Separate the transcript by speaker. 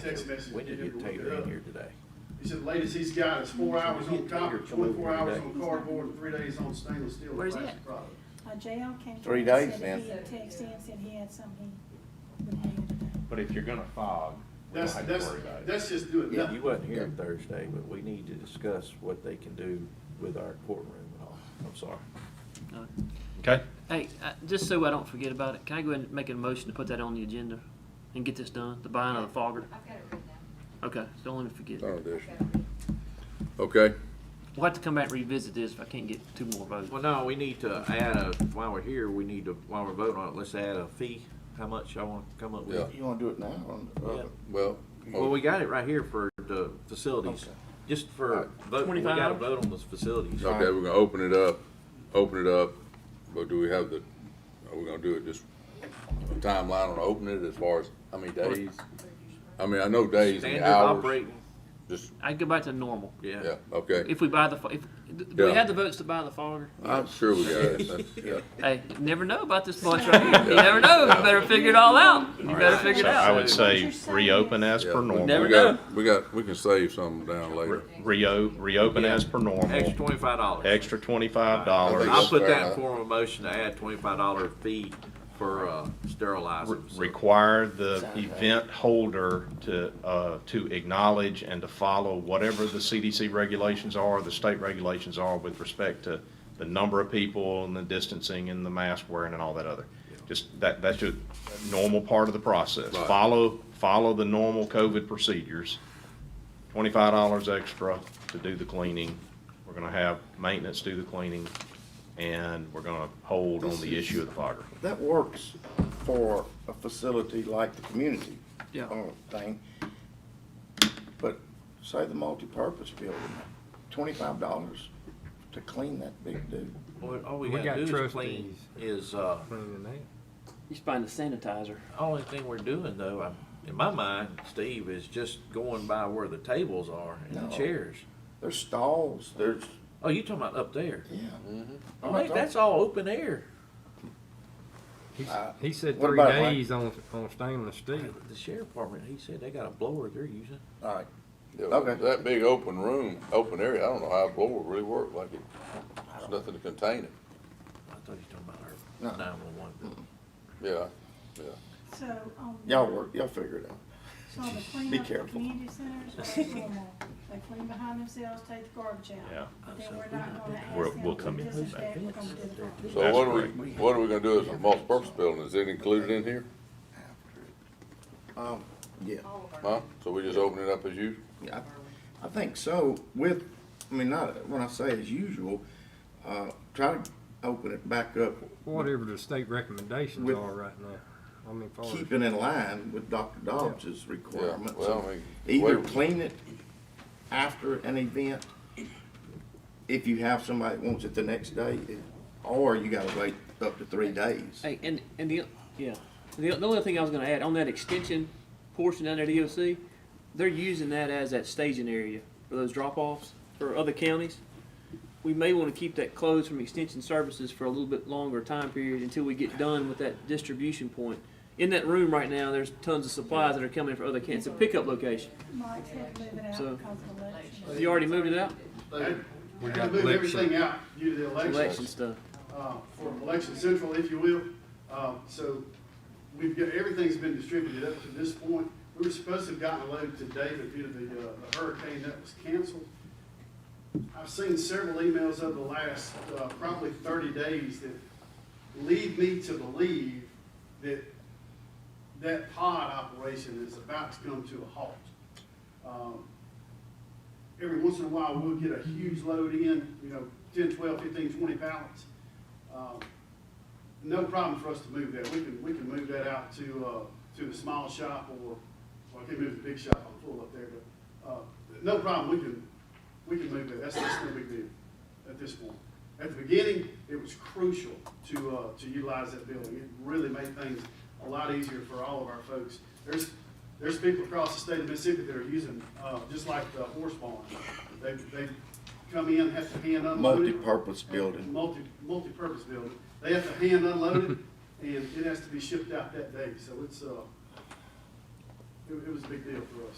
Speaker 1: text message.
Speaker 2: When did
Speaker 1: for him
Speaker 2: you
Speaker 1: to
Speaker 2: take
Speaker 1: look it
Speaker 2: in
Speaker 1: up.
Speaker 2: here today?
Speaker 1: He said the latest he's got is four hours on copper,
Speaker 2: Come over
Speaker 1: twenty-four hours
Speaker 2: today.
Speaker 1: on cardboard, and three days on stainless steel. and
Speaker 3: Where's it
Speaker 1: plastic
Speaker 3: at?
Speaker 1: product.
Speaker 4: Uh, JL came.
Speaker 2: Three
Speaker 4: to us,
Speaker 2: days
Speaker 4: said
Speaker 2: then.
Speaker 4: He texted in, said he had something he would need today.
Speaker 5: But if you're gonna fog, we don't
Speaker 1: That's,
Speaker 5: have to
Speaker 1: that's,
Speaker 5: worry about it.
Speaker 1: that's just doing
Speaker 2: Yeah, you
Speaker 1: nothing.
Speaker 2: wasn't here Thursday, but we need to discuss what they can do with our courtroom and all. I'm sorry.
Speaker 3: No.
Speaker 6: Okay.
Speaker 3: Hey, uh, just so I don't forget about it, can I go ahead and make a motion to put that on the agenda and get this done, the buying of the fogger?
Speaker 7: I've got it written down.
Speaker 3: Okay, don't let me forget.
Speaker 8: Oh, there's,
Speaker 7: I've got it written.
Speaker 8: okay.
Speaker 3: We'll have to come back and revisit this if I can't get two more votes.
Speaker 2: Well, no, we need to add a, while we're here, we need to, while we're voting on it, let's add a fee. How much I want to come up with?
Speaker 8: Yeah.
Speaker 9: You wanna do it now? on the-
Speaker 2: Yeah.
Speaker 8: Well, oh,
Speaker 2: Well, we got it right here for the facilities, just for vote, we got to
Speaker 3: 25?
Speaker 2: vote on those facilities.
Speaker 8: okay, we're gonna open it up, open it up, but do we have the, are we gonna do it just a timeline on opening it as far as how many days? I mean, I know days and
Speaker 2: Standard
Speaker 8: hours,
Speaker 2: operating,
Speaker 8: just,
Speaker 3: I go back to normal.
Speaker 2: yeah.
Speaker 8: yeah, okay.
Speaker 3: If we buy the, fo- if, do we
Speaker 8: Yeah.
Speaker 3: have the votes to buy the fogger?
Speaker 8: I'm sure we got it, That's- yeah.
Speaker 3: Hey, you never know about this bunch right here. You never know. You better figure it all out. You better figure it
Speaker 6: So I
Speaker 3: out.
Speaker 6: would say reopen as
Speaker 8: Yeah,
Speaker 6: per
Speaker 8: we-
Speaker 6: normal.
Speaker 3: Never
Speaker 8: We got, we got, we can save some down later.
Speaker 6: Reo, reopen as per normal,
Speaker 2: Extra twenty-five dollars.
Speaker 6: extra twenty-five
Speaker 2: I'll
Speaker 6: dollars,
Speaker 2: put
Speaker 8: Fair
Speaker 2: that in
Speaker 8: enough.
Speaker 2: form of a motion to add twenty-five dollar fee for uh, sterilizing. facilities.
Speaker 6: require the event holder to, uh, to acknowledge and to follow whatever the CDC regulations are, the state regulations are with respect to the number of people and the distancing and the mask wearing and all that other. Just, that, that's just a normal part of the process.
Speaker 8: Right.
Speaker 6: Follow, follow the normal COVID procedures. Twenty-five dollars extra to do the cleaning. We're gonna have maintenance do the cleaning, and we're gonna hold on the issue of the fogger.
Speaker 9: That works for a facility like the community.
Speaker 3: Yeah.
Speaker 9: uh, Thing. But say the multipurpose building, twenty-five dollars to clean that big dude.
Speaker 2: Well, All we
Speaker 10: We
Speaker 2: gotta
Speaker 10: got
Speaker 2: do is clean is, uh,
Speaker 3: He's buying the sanitizer.
Speaker 2: only thing we're doing though, I'm- in my mind, Steve, is just going by where the tables are and the
Speaker 9: No.
Speaker 2: chairs.
Speaker 9: There's stalls, there's,
Speaker 2: Oh, you talking about up there?
Speaker 9: yeah. I'm not
Speaker 2: Mate, that's all open air.
Speaker 9: Uh,
Speaker 10: He said
Speaker 9: what
Speaker 10: three
Speaker 9: about, like-
Speaker 10: days on, on stainless steel.
Speaker 2: The sheriff department, he said they got a blower they're using.
Speaker 9: talking- All right,
Speaker 8: Yeah,
Speaker 9: Okay.
Speaker 8: That big open room, open area, I don't know how a blower really worked, like it, there's nothing to contain it,
Speaker 2: I thought you were talking about
Speaker 9: No.
Speaker 2: our nine-one-one.
Speaker 8: yeah.
Speaker 4: So on. the-
Speaker 9: y'all work, y'all figure it out.
Speaker 4: So on the
Speaker 9: Be
Speaker 4: cleanup, the
Speaker 9: careful.
Speaker 4: community centers are a little more. They clean behind themselves, take the garbage out.
Speaker 6: Yeah.
Speaker 4: But Then we're not gonna ask
Speaker 6: We're-
Speaker 4: them
Speaker 6: we'll
Speaker 4: to
Speaker 6: come in.
Speaker 4: disinfect, we're gonna do the garbage.
Speaker 8: So
Speaker 6: That's
Speaker 8: what are we, what are we gonna do as a multipurpose building, is it included in here,
Speaker 9: Um, yeah.
Speaker 7: All of our-
Speaker 8: huh? So we just open it up as usual?
Speaker 9: Yeah, I- I think so, with, I mean, not, when I say as usual, uh, try to open it back up,
Speaker 10: Whatever the state recommendations
Speaker 9: With-
Speaker 10: are right now. I mean, far as-
Speaker 9: keeping in line with Dr. Dobbs's
Speaker 8: Oh, Yeah,
Speaker 9: requirements.
Speaker 8: well, I mean.
Speaker 9: Either
Speaker 8: wait-
Speaker 9: clean it after an event, if you have somebody that wants it the next day, or you gotta wait up to three days.
Speaker 3: Hey, and, and the, yeah, the, the only thing I was gonna add, on that extension portion down there at EOC, they're using that as that staging area for those drop-offs for other counties. We may wanna keep that closed from extension services for a little bit longer time period until we get done with that distribution point. In that room right now, there's tons of supplies that are coming for other counties, it's a pickup location.
Speaker 4: Mike's had to move it out
Speaker 3: So-
Speaker 4: because of election.
Speaker 3: Have you already moved it out?
Speaker 1: They had
Speaker 10: We
Speaker 1: to
Speaker 10: got
Speaker 1: move
Speaker 10: election.
Speaker 1: everything out due to the election,
Speaker 3: Election stuff.
Speaker 1: uh, for election central, if you will. Um, so we've got, everything's been distributed up to this point. We were supposed to have gotten a load today, but due to the, uh, the hurricane, that was canceled. I've seen several emails over the last, uh, probably thirty days that lead me to believe that that pod operation is about to come to a halt. Um, every once in a while, we'll get a huge load in, you know, 10, 12, 15, 20 pallets. Um, No problem for us to move that. We can, we can move that out to, uh, to a small shop or, well, I can move the big shop, I'm full up there, but, uh, no problem, we can, we can move that. That's, that's no big deal at this point. At the beginning, it was crucial to, uh, to utilize that building. It really made things a lot easier for all of our folks. There's, there's people across the state of Mississippi that are using, uh, just like the horse barn. They, they come in, have to hand unload it.
Speaker 9: Multi-purpose building.
Speaker 1: Multi, multi-purpose building. They have to hand unload it, and it has to be shipped out that day. So it's, uh, it, it was a big deal for us.